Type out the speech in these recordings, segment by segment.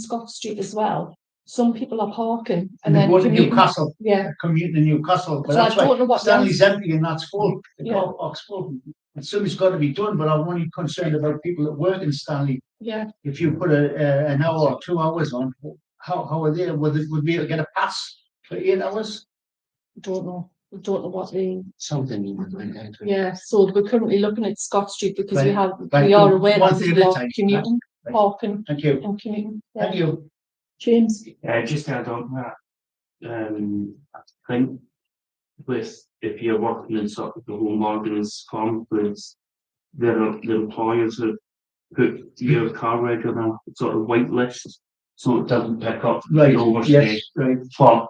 Scott Street as well, some people are parking and You then. go to commuting. Newcastle, Yeah, commuting to Newcastle, but So I that's why don't know what Stanley's empty and that's full, the Yeah. car park's full. And something's got to be done, but I'm only concerned about people that work in Stanley. yeah, If you put a, a, an hour or two hours on, how, how are they, would, it- would we get a pass for eight hours? don't know, We don't know what the, Something you would like that. yeah, so we're currently looking at Scott Street because we Right, have, right, we are so aware one that thing people at a are time, commuting, right. parking Thank you, and commuting. Yeah. thank you. James, Yeah, just add on that. Um, I think with, if you're working in sort of the home ordinance conference, there the employers have put your car reg on a sort of white list, so it doesn't pick up Right, the overstay. yes, right, But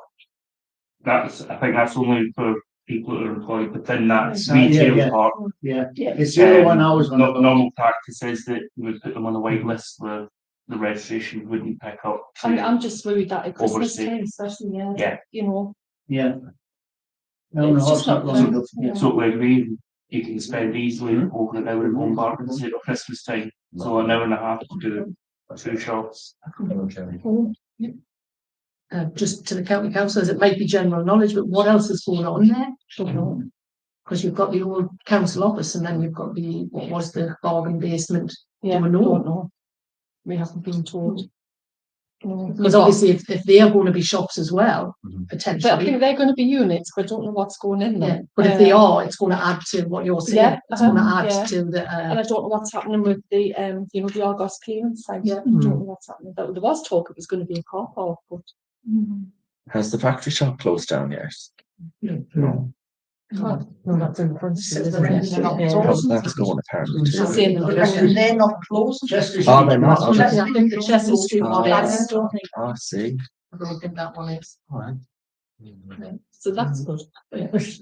that's, I think that's only for people that are employed within that Ah, yeah, yeah. retail part. yeah. Yeah. It's the Um, only one hours on. Nor- it. Normal practice is that you would put them on a white list where the registration wouldn't pick up. I'm, I'm just worried that at Christmas Overstay. time especially, yeah, Yeah. you know, Yeah. No, no, It's just it's not not long fair. enough. Yeah. So we agree, you can spend easily over an hour in home bargain, say at Christmas time, so an hour and a half to do two shops. Oh, uh, just to the county councillors, it might be general knowledge, but what else is going on there? Don't know. Because you've got the old council office and then you've got the, what was the bargain basement? yeah, Don't we know. don't know. We haven't been told. No, Because but- obviously if, if they are going to be shops as well, Mhm. But I potentially. think they're gonna be units, but I don't know what's going in Yeah, there. but if they Um, are, it's going to add to what you're saying. Yeah, It's going to uh-huh, yeah. add to the, uh, And I don't know what's happening with the, um, you know, the Argos cleaning site. Yeah. Hmm. I don't know what's happening. There there was talk it was gonna be a car park, but. Hmm. Has the factory shop closed down yet? No. no, that's in front. This is the rent, they're not Yeah. Because that's going apparently It's the too. same But as- that's- Yeah. they're not closed. Chester Oh, Street, they're not, that's- okay. Chester- I think the Chester Street Oh, one, that's- I don't think, I Ah, see. I don't think that one is. Alright. So Hmm. that's good.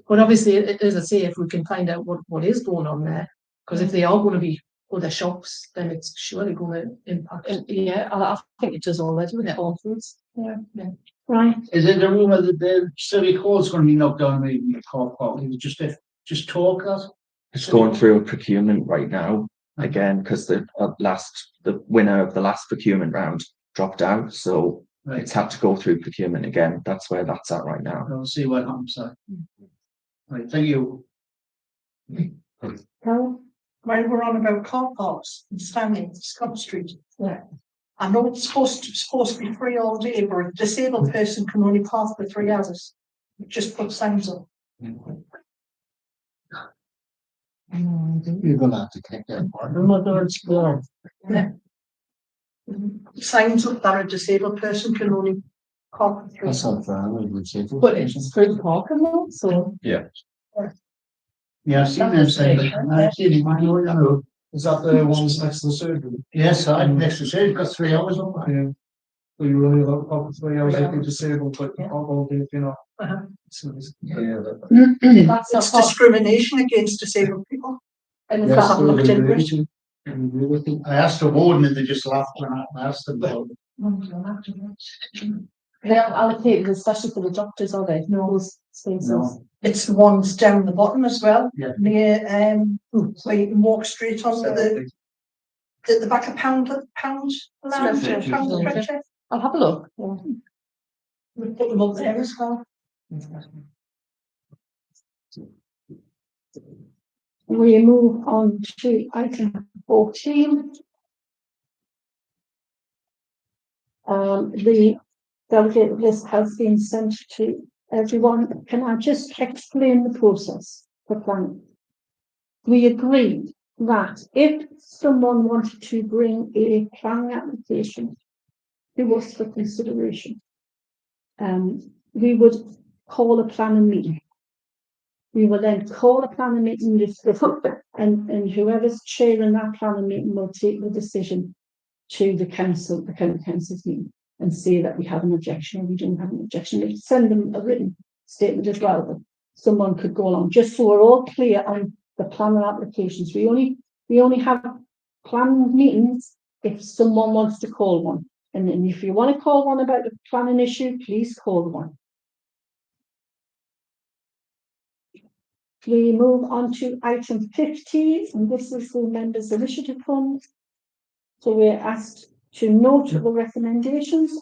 But obviously, a- a- as I say, if we can find out what, what is going on there, because if they are going to be other shops, then it's surely going to impact. And yeah, I, I think it does already with farm foods. Yeah. Right. Is it the rumor that the city hall's gonna be knocked down maybe in the car park? It was just a, just talk that? It's going through a procurement right now, again, because the uh, last, the winner of the last procurement round dropped out, so Right, it's had to go through procurement again. That's where that's at right now. we'll see what happens there. Right, thank you. Well, while we're on about car parks and standing Scott Street. Yeah. I know it's supposed to, supposed to be free all day, but a disabled person can only park for three hours. Just put signs up. You're gonna have to take that part. Signs up that a disabled person can only park for three. hours. not fair, I would say. But it's through the parking lot, so. Hmm. Yeah, I've seen them say that. I've seen it, I know, I know. Is that the ones next to the surgery? Yes, I, next to say, it's got three hours on that. Yeah. So you only allow up to three hours if you're disabled, but you can't all do if you're not. Uh-huh. So it's- That's not It's part, discrimination against disabled people. and is Yeah, that so looked we- into it? I asked the warden and they just laughed when I I asked them about it. They're allocated especially for the doctors, are they? No. Those spaces. No. It's the ones down the bottom as well. Yeah. Near, um, Hmm. where you can walk straight onto the, the, the back of pound, pound lounge, Stretcher. pound stretcher. I'll have a look. Yeah. We put them up there as well. Mm-hmm. We move on to item fourteen. Um, the delegate list has been sent to everyone. Can I just explain the process for planning? We agreed that if someone wanted to bring a planning application to us for consideration, um, we would call a planning meeting. We will then call a planning meeting and discuss it, and, and whoever's chairing that planning meeting will take the decision to the council, the county council's meeting, and say that we have an objection or we don't have an objection. We send them a written statement as well, that someone could go along, just so we're all clear on the planning applications. We only, we only have planning meetings if someone wants to call one. And then if you want to call one about the planning issue, please call one. We move on to item fifty, and this is the members' initiative fund. So we're asked to note the recommendations